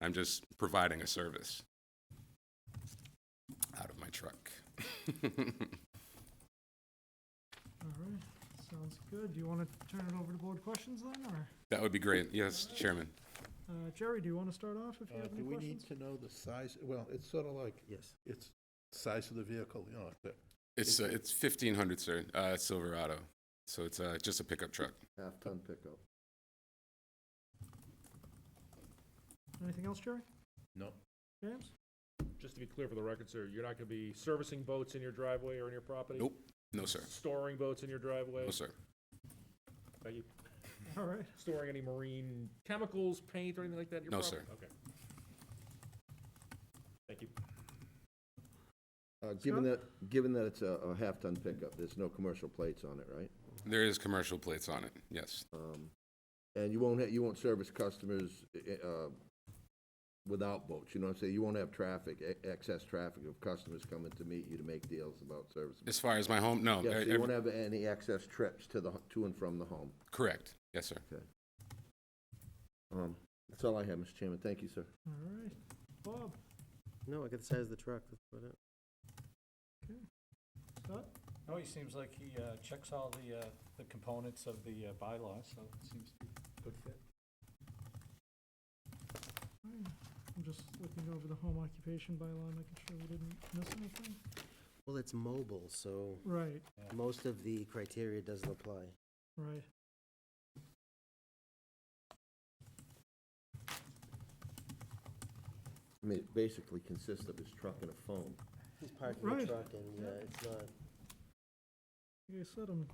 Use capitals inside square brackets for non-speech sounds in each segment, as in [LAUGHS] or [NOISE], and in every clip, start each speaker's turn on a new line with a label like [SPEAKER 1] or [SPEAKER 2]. [SPEAKER 1] I'm just providing a service out of my truck.
[SPEAKER 2] All right, sounds good. Do you want to turn it over to board questions then, or
[SPEAKER 1] That would be great. Yes, Chairman.
[SPEAKER 2] uh, Jerry, do you want to start off if you
[SPEAKER 3] Uh,
[SPEAKER 2] have any
[SPEAKER 3] Do we need
[SPEAKER 2] questions?
[SPEAKER 3] to know the size, well, it's sort of like,
[SPEAKER 4] Yes.
[SPEAKER 3] it's size of the vehicle, you know, the-
[SPEAKER 1] It's, uh, it's 1500, sir, uh, Silverado. So it's, uh, just a pickup truck.
[SPEAKER 5] Half-ton pickup.
[SPEAKER 2] Anything else, Jerry?
[SPEAKER 3] no,
[SPEAKER 2] James?
[SPEAKER 6] Just to be clear for the record, sir, you're not gonna be servicing boats in your driveway or in your property?
[SPEAKER 1] Nope. No, sir.
[SPEAKER 6] Storing boats in your driveway?
[SPEAKER 1] No, sir.
[SPEAKER 6] Are you
[SPEAKER 2] All right,
[SPEAKER 6] storing any marine chemicals, paint, or anything like that in your
[SPEAKER 1] No,
[SPEAKER 6] property? Okay. Thank you.
[SPEAKER 5] Uh, Given that, given that it's a a half-ton pickup, there's no commercial plates on it, right?
[SPEAKER 1] There is commercial plates on it. Yes.
[SPEAKER 5] Um, And you won't, ha- you won't service customers eh, uh, without boats, you know what I'm saying? You won't have traffic, e- excess traffic of customers coming to meet you to make deals about service.
[SPEAKER 1] As far as my home, no.
[SPEAKER 5] Yeah, so
[SPEAKER 1] Uh,
[SPEAKER 5] you
[SPEAKER 1] every-
[SPEAKER 5] won't have any excess trips to the, h- to and from the home.
[SPEAKER 1] Correct. Yes, sir.
[SPEAKER 5] Um, That's all I have, Mr. Chairman. Thank you, sir.
[SPEAKER 2] all right. Bob,
[SPEAKER 4] No, I got the size of the truck, that's about it.
[SPEAKER 2] Scott?
[SPEAKER 7] No, he seems like he uh, checks all the, uh, the components of the uh, bylaw, so it seems to be a good fit.
[SPEAKER 2] I'm just looking over the home occupation bylaw, making sure we didn't miss anything.
[SPEAKER 4] Well, it's mobile, so
[SPEAKER 2] Right,
[SPEAKER 4] most of the criteria doesn't apply.
[SPEAKER 2] right.
[SPEAKER 5] I mean, it basically consists of his truck and a phone.
[SPEAKER 4] He's parking the
[SPEAKER 2] Right.
[SPEAKER 4] truck and, yeah, it's not,
[SPEAKER 2] Like I said, I'm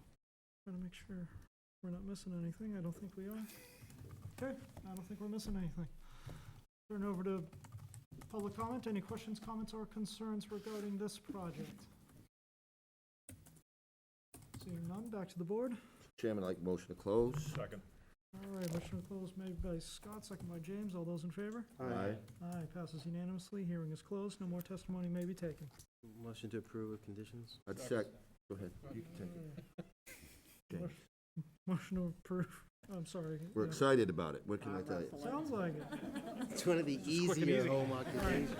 [SPEAKER 2] trying to make sure we're not missing anything. I don't think we are. Okay, I don't think we're missing anything. Turn over to public comment. Any questions, comments, or concerns regarding this project? Seeing none, back to the board.
[SPEAKER 5] Chairman, I'd like motion to close.
[SPEAKER 6] Second.
[SPEAKER 2] All right, motion to close made by Scott, second by James. All those in favor?
[SPEAKER 4] Aye.
[SPEAKER 2] Aye, passes unanimously. Hearing is closed. No more testimony may be taken.
[SPEAKER 4] motion to approve with conditions.
[SPEAKER 5] I'd sec, go ahead. You can take it. James.
[SPEAKER 2] Motion to approve. I'm sorry.
[SPEAKER 5] We're
[SPEAKER 2] yeah.
[SPEAKER 5] excited about it. What can I tell you?
[SPEAKER 2] Sounds like it.
[SPEAKER 4] It's one of the easier home occupations.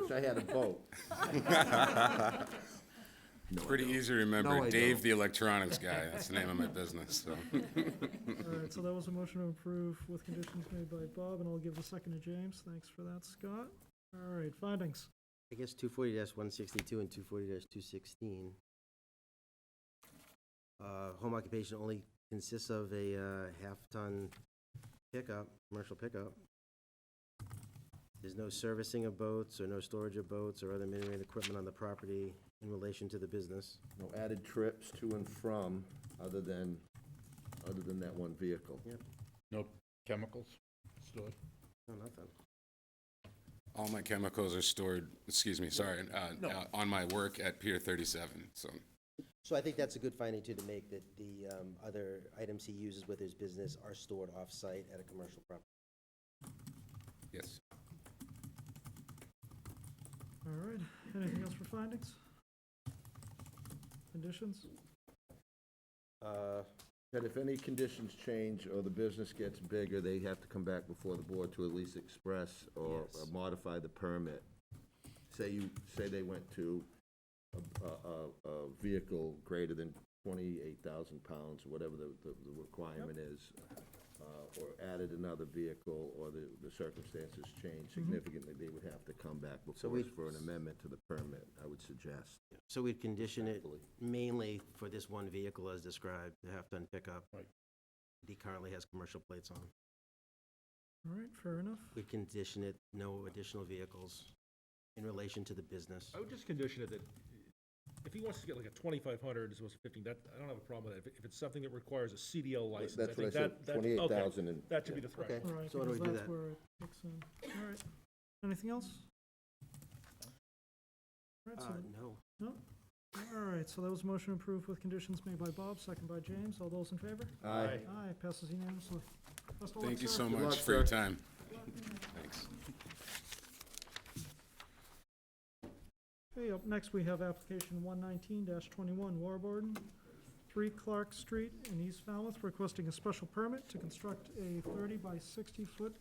[SPEAKER 5] Wish I had a boat. No, I
[SPEAKER 1] Pretty
[SPEAKER 5] don't.
[SPEAKER 1] easy to remember.
[SPEAKER 5] No, I
[SPEAKER 1] Dave,
[SPEAKER 5] don't.
[SPEAKER 1] the electronics guy. That's the name of my business.
[SPEAKER 5] [LAUGHS]
[SPEAKER 1] So.
[SPEAKER 2] All right, so that was a motion to approve with conditions made by Bob, and I'll give the second to James. Thanks for that, Scott. All right, findings.
[SPEAKER 4] I guess two forty one sixty-two and two forty two sixteen. Uh, home occupation only consists of a, uh, half-ton pickup, commercial pickup. There's no servicing of boats or no storage of boats or other minimum equipment on the property in relation to the business.
[SPEAKER 5] No added trips to and from, other than, other than that one vehicle.
[SPEAKER 3] no chemicals stored.
[SPEAKER 4] No, nothing.
[SPEAKER 1] All my chemicals are stored, excuse me, sorry, uh,
[SPEAKER 3] No.
[SPEAKER 1] uh, on my work at Pier 37. So
[SPEAKER 4] So I think that's a good finding too, to make that the, um, other items he uses with his business are stored off-site at a commercial property.
[SPEAKER 1] yes.
[SPEAKER 2] All right, anything else for findings? Conditions?
[SPEAKER 4] Uh,
[SPEAKER 5] That if any conditions change or the business gets bigger, they have to come back before the board to at least express or
[SPEAKER 4] Yes.
[SPEAKER 5] or modify the permit. Say you, say they went to a, a, a, a vehicle greater than twenty-eight thousand pounds, whatever the, the the requirement is, uh, or added another vehicle, or the, the circumstances change
[SPEAKER 6] Mm-hmm.
[SPEAKER 5] significantly, they would have to come back before
[SPEAKER 4] we-
[SPEAKER 5] us for an amendment to the permit, I would suggest.
[SPEAKER 4] So we'd condition it mainly for this one vehicle as described, the half-ton pickup.
[SPEAKER 3] Right.
[SPEAKER 4] He currently has commercial plates on.
[SPEAKER 2] All right, fair enough.
[SPEAKER 4] We'd condition it, no additional vehicles in relation to the business.
[SPEAKER 6] I would just condition it that if he wants to get like a twenty-five hundred as opposed to fifteen, that, I don't have a problem with that. If it- If it's something that requires a CDL license,
[SPEAKER 5] That's
[SPEAKER 6] I
[SPEAKER 5] what I
[SPEAKER 6] think
[SPEAKER 5] said,
[SPEAKER 6] that, that, okay,
[SPEAKER 5] twenty-eight thousand and.
[SPEAKER 6] That should be the threshold.
[SPEAKER 2] All right,
[SPEAKER 4] So why don't
[SPEAKER 2] because
[SPEAKER 4] we do
[SPEAKER 2] that's
[SPEAKER 4] that?
[SPEAKER 2] where it kicks in. All right, anything else? All right,
[SPEAKER 4] Uh,
[SPEAKER 2] so,
[SPEAKER 4] no.
[SPEAKER 2] all right, so that was a motion approved with conditions made by Bob, second by James. All those in favor?
[SPEAKER 5] Aye.
[SPEAKER 2] Aye, passes unanimously. Best of luck,
[SPEAKER 1] Thank you
[SPEAKER 2] sir.
[SPEAKER 1] so
[SPEAKER 5] Good
[SPEAKER 1] much
[SPEAKER 5] luck,
[SPEAKER 1] for your
[SPEAKER 5] sir.
[SPEAKER 1] time. Thanks.
[SPEAKER 2] Okay, up next, we have application one nineteen twenty-one, Warburton, three Clark Street in East Falmouth, requesting a special permit to construct a thirty by sixty-foot